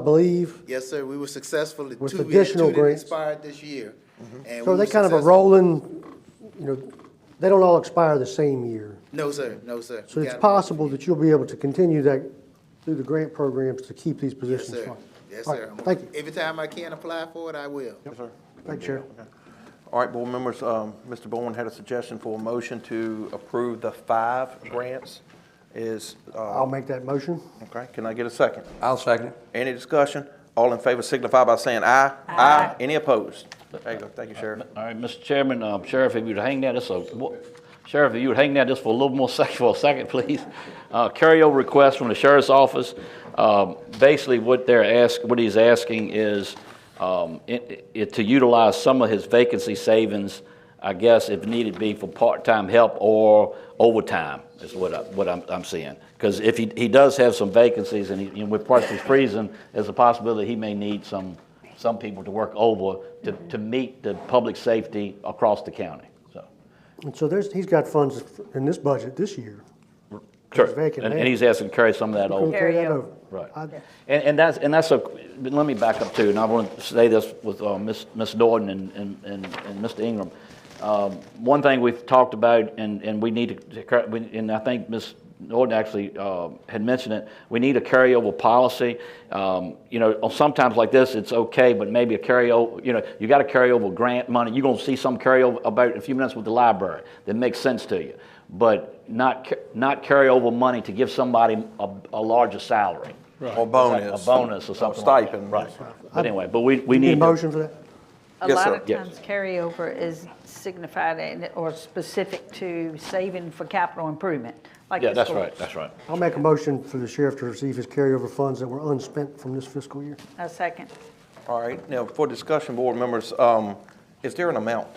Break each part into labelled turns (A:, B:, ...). A: I believe.
B: Yes, sir, we were successful, the
A: With
B: two, we had
A: additional
B: two that
A: grants.
B: expired this year. and
A: So
B: we
A: they
B: were
A: kind of a
B: successful.
A: rolling, you know, they don't all expire the same year.
B: No, sir, no, sir.
A: So
B: We
A: it's
B: got 'em.
A: possible that you'll be able to continue that through the grant programs to keep these
B: Yes,
A: positions.
B: sir,
A: full.
B: yes,
A: All
B: sir.
A: right,
B: I'm-
A: Thank you.
B: Every time I can apply for it, I will.
C: Yes, sir.
A: Thank you, Chair.
C: All right, board members, um, Mr. Bowen had a suggestion for a motion to approve the five grants. Is, uh,
A: I'll make that motion.
C: okay, can I get a second?
D: I'll second it.
C: Any discussion? All in favor signify by saying aye. Aye. Any opposed? There you go. Thank you, Sheriff.
E: All right, Mr. Chairman, um, Sheriff, if you'd hang that, this, a- Sheriff, if you would hang that just for a little more sec, for a second, please. Uh, Carryover request from the sheriff's office. Um, Basically, what they're ask, what he's asking is um, it- it- to utilize some of his vacancy savings, I guess, if needed be, for part-time help or overtime, is what I, what I'm, I'm seeing. Because if he, he does have some vacancies, and he- and with partially freezing, there's a possibility he may need some some people to work over to, to meet the public safety across the county, so.
A: And so there's, he's got funds in this budget this year.
E: Sure,
A: vacant
E: and,
A: land.
E: and he's asking to carry some of that
A: We'll
E: over.
A: carry
F: Carry
A: that
F: over.
A: over.
E: Right.
A: I-
E: And, and that's, and that's a, but let me back up too, and I want to say this with uh, Ms. Ms. Norton and, and, and and Mr. Ingram. Um, One thing we've talked about, and, and we need to- to, cur- we- and I think Ms. Norton actually uh, had mentioned it, we need a carryover policy. Um, You know, sometimes like this, it's okay, but maybe a carryover, you know, you got a carryover grant money, you're going to see some carryover about in a few minutes with the library, that makes sense to you. But not, ca- not carryover money to give somebody a, a larger salary.
C: Or bonus.
E: A bonus or something like that.
C: Stipend.
E: Right. But anyway, but we, we
A: You Need a
E: need, to-
A: motion for that?
F: A
C: Yes,
F: lot
C: sir.
F: of
E: Yes.
F: times carryover is signified and- or specific to saving for capital improvement, like
E: yeah,
F: the
E: that's right,
F: schools.
E: that's right.
A: I'll make a motion for the sheriff to receive his carryover funds that were unspent from this fiscal year.
F: A second.
C: All right, now for discussion, board members, um, is there an amount?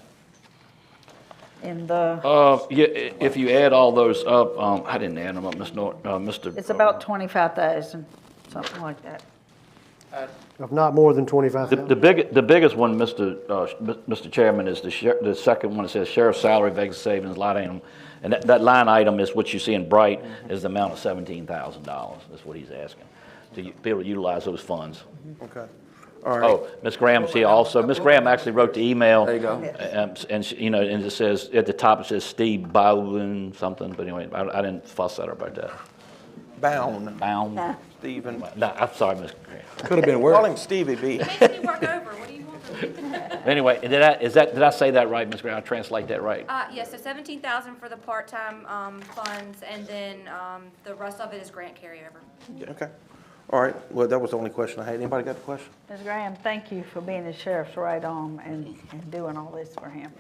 F: In the,
E: Uh, yeah, i- if you add all those up, um, I didn't add them up, Ms. Norton, uh, Mr.
F: it's about 25,000, something like that.
A: If not more than
E: The,
A: 25,000.
E: the big, the biggest one, Mr. uh, sh- Mr. Chairman, is the sher, the second one, that says sheriff's salary, vacancy savings, line item. And that, that line item is what you see in bright, is the amount of seventeen thousand dollars, that's what he's asking, to u- be able to utilize those funds.
C: Okay. All right.
E: Oh, Ms. Graham's here also. Ms. Graham actually wrote the email. There you
D: go.
E: And, she- you know, and it says, at the top it says Steve Bowden something, but anyway, I I didn't fuss at her about that.
C: Bound,
E: Bound? No,
C: Stephen.
E: I'm sorry, Ms. Graham.
D: Could have been
C: Call
D: worse.
C: him Stevie B.
G: Making me work over, what do you want from me?
E: Anyway, did I, is that, did I say that right, Ms. Graham? I translate that right?
G: Uh, yeah, so seventeen thousand for the part-time, um, funds, and then, um, the rest of it is grant carryover.
C: Okay. All right, well, that was the only question I had. Anybody got a question?
F: Ms. Graham, thank you for being the sheriff's right arm and, and doing all this for him.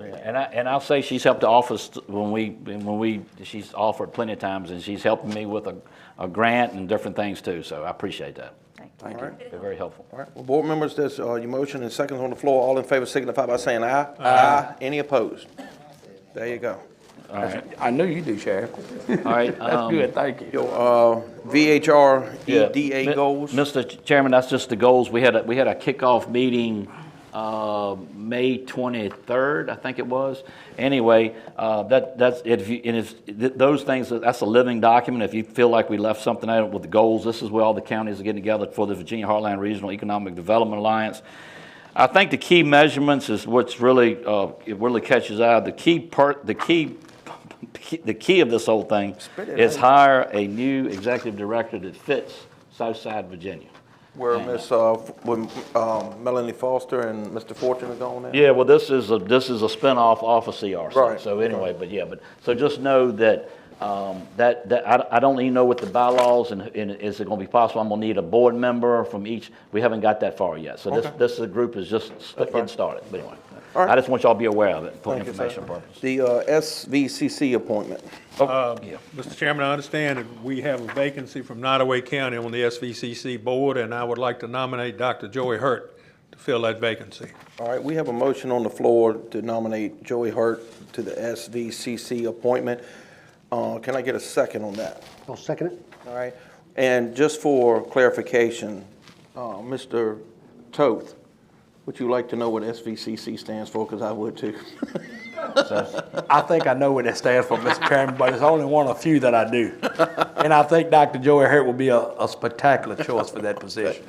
E: Yeah, And I, and I'll say she's helped the office when we, when we, she's offered plenty of times, and she's helping me with a, a grant and different things too, so I appreciate that.
F: Thank you.
C: All right.
E: They're very helpful.
C: All right, well, board members, there's uh, your motion and seconds on the floor. All in favor signify by saying aye. Aye. Any opposed? There you go.
E: All right,
D: I knew you do, Sheriff.
E: all right. um,
D: Good, thank you.
C: Your uh, VHR
E: Yeah. Mi-
C: EDA E goals?
E: Mr. Chairman, that's just the goals. We had, a we had a kickoff meeting, uh, May 23rd, I think it was. Anyway, uh, that, that's, if you, and if, th- those things, that's a living document. If you feel like we left something out with the goals, this is where all the counties are getting together for the Virginia Heartland Regional Economic Development Alliance. I think the key measurements is what's really, uh, it really catches eye. The key part, the key, the key of this whole thing
C: Spit it
E: is
C: out.
E: hire a new executive director that fits Southside Virginia.
C: Where Miss, uh, F- when, um, Melanie Foster and Mr. Fortune are gone now?
E: Yeah, well, this is a, this is a spinoff off of CRC.
C: Right,
E: So anyway, but yeah, but, so just know that, um, that, that, I, I don't even know what the bylaws and, and is it gonna be possible? I'm gonna need a board member from each, we haven't got that far yet. So this,
C: Okay.
E: this is- group is just st- getting started, but anyway.
C: All right.
E: I just want y'all to be aware of it for
C: Thank you, sir.
E: information purposes.
C: The uh, SVCC appointment.
H: Mr. Chairman, I understand that we have a vacancy from Nottaway County on the SVCC board, and I would like to nominate Dr. Joey Hurt to fill that vacancy.
C: All right, we have a motion on the floor to nominate Joey Hart to the SVCC appointment. Uh, Can I get a second on that?
A: I'll second it.
C: All right, and just for clarification, uh, Mr. Toth, would you like to know what SVCC stands for? Because I would too.
D: I think I know what that stands for, Mr. Chairman, but it's only one of few that I do. And I think Dr. Joey Hurt will be a, a spectacular choice for that position.